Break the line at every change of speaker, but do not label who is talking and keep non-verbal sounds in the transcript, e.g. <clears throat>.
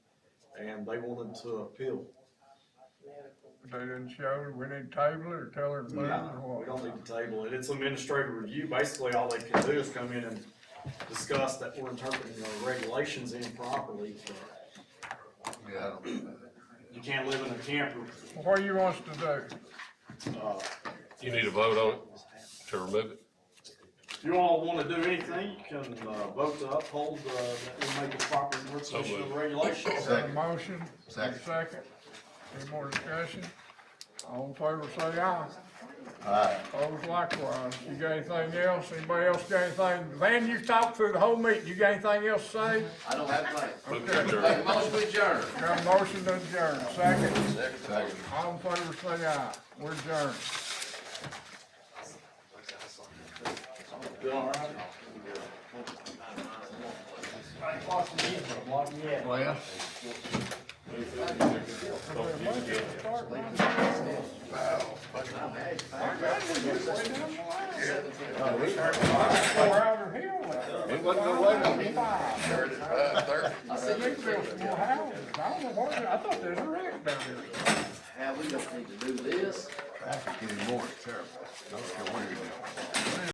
and they wanted to appeal.
They didn't show, we need to table it or tell her to move
No,
or
we
what?
don't need to table it. It's administrative review. Basically, all they can do is come in and discuss that we're interpreting the regulations improperly.
Yeah, I
<clears throat>
don't think that.
You can't live in a camper,
What do you want us to do?
uh,
You need a vote on it to remove it?
If you all wanna do anything, you can, uh, vote to uphold, uh, that we make a proper interpretation of the regulations.
Got a
Second.
motion?
Second.
A Second. Any more discussion? All in favor, say aye.
Alright,
Opposed likewise. You got anything else? Anybody else got anything? Van, you talked through the whole meeting. You got anything else to say?
I don't have plans.
Move
Okay.
to adjourn.
Make a motion to adjourn.
Got a motion to adjourn. Second.
second.
All in favor, say aye. We're adjourned.
Well.
We're out of here.
It wasn't no way on me.
Five.
Started at five thirty.
They built some more houses. I don't know what, I thought there's a wreck down there.
How we just need to do this.
Traffic anymore, it's terrible. I don't care where you're going.